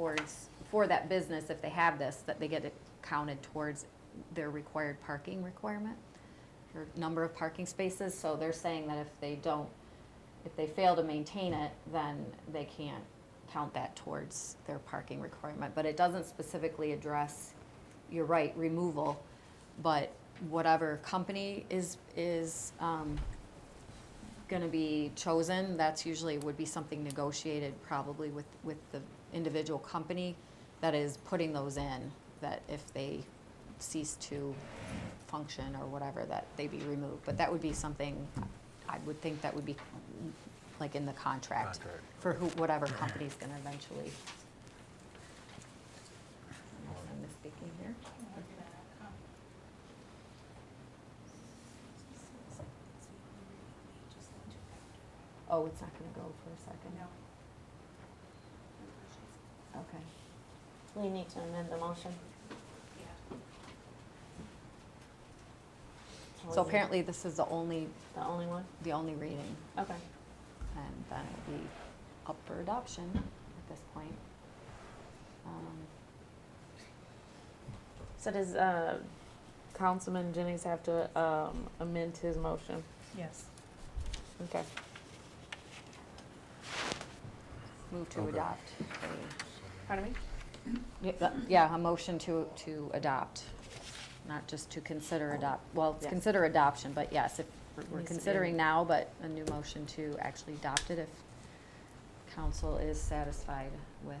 towards, for that business, if they have this, that they get it counted towards their required parking requirement, or number of parking spaces, so they're saying that if they don't, if they fail to maintain it, then they can't count that towards their parking requirement, but it doesn't specifically address, you're right, removal, but whatever company is, is, um, gonna be chosen, that's usually would be something negotiated probably with, with the individual company that is putting those in, that if they cease to function or whatever, that they be removed. But that would be something, I would think that would be like in the contract Contract. for who, whatever company's gonna eventually. Unless I'm mistaken here. Oh, it's not gonna go for a second? Okay. We need to amend the motion. So apparently this is the only, The only one? the only reading. Okay. And then it would be up for adoption at this point. Um, So does, uh, Councilman Jennings have to, um, amend his motion? Yes. Okay. Move to Okay. adopt. a- Pardon me? yeah, Yeah, a motion to, to adopt, not just to consider adopt, well, it's Yeah. consider adoption, but yes, if we're- we're Needs to be- considering now, but a new motion to actually adopt it if council is satisfied with.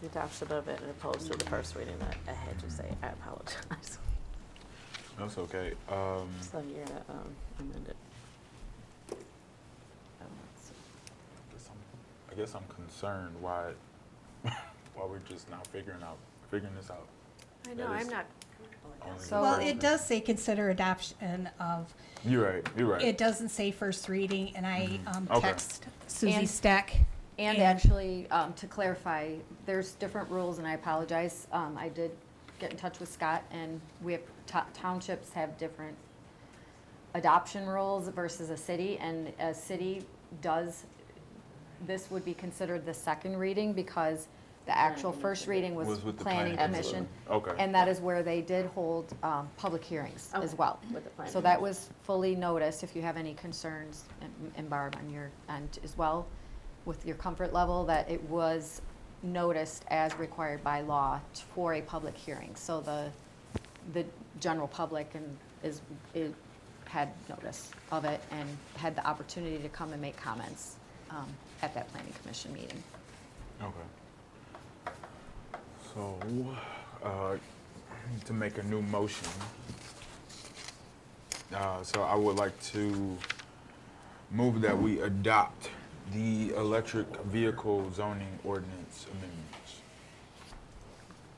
The adoption of it and opposed to the first reading, I, I had to say, I apologize. That's okay. Um, So you're gonna, um, amend it. oh, let's see. I guess I'm concerned why, why we're just now figuring out, figuring this out. I know, know, That I'm I'm is- not, not- on the So- Well, first it reading. does say consider adoption of, You're right, you're right. it doesn't say first reading, and I Mhm. um, Okay. text Susie And- Steck. And And- actually, um, to clarify, there's different rules, and I apologize. Um, I did get in touch with Scott, and we have, to- townships have different adoption rules versus a city, and a city does, this would be considered the second reading because the actual first reading was Was with the planning planning commission. commission. Okay. And that is where they did hold, um, public hearings as Okay. well. With the planning So that was fully noticed. If you have any concerns, and- and Barb, on your end as well, with your comfort level, that it was noticed as required by law t- for a public hearing. So the, the general public and is, it had notice of it and had the opportunity to come and make comments um, at that planning commission meeting. Okay. So, uh, to make a new motion. Uh, so I would like to move that we adopt the electric vehicle zoning ordinance amendments.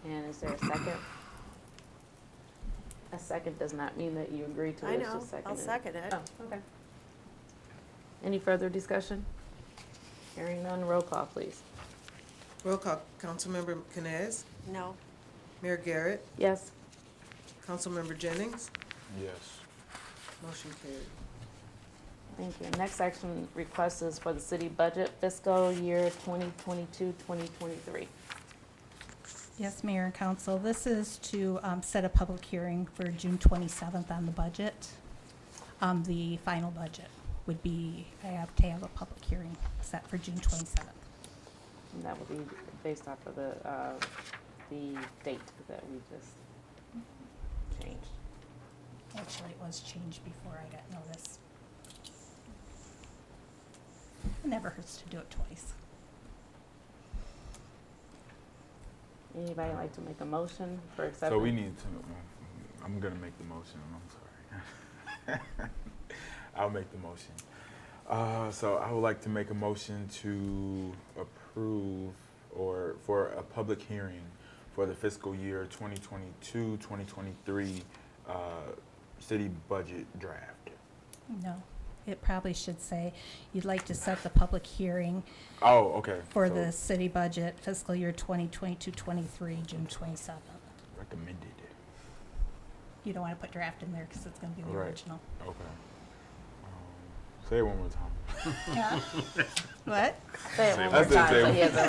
And is there a second? A second does not mean that you agree to I it, it's know, just I'll seconded. second it. Oh, okay. Any further discussion? Hearing none, roll call, please. Roll call, Councilmember Canes, No, Mayor Garrett, Yes? Councilmember Jennings, Yes. motion carried. Thank you. Next action request is for the city budget fiscal year 2022, 2023. Yes, Mayor and Council, this is to um, set a public hearing for June 27th on the budget. Um, The final budget would be, I have to have a public hearing set for June 27th. And that will be based off of the, uh, the date that we just changed. Actually, it was changed before I got notice. It never hurts to do it twice. Anybody like to make a motion for acceptance? So we need to, mm, I'm gonna make the motion, I'm sorry. I'll make the motion. Uh, so I would like to make a motion to approve or for a public hearing for the fiscal year 2022, 2023, uh, city budget draft. No, it probably should say, you'd like to set the public hearing Oh, okay. for so the city budget fiscal year 2022-23, June 27th. Recommended, You don't want to put draft in there because it's going to be the Right. original. okay. Um, Say it one more time. What? Say it one more That's it, say time, it so one he has a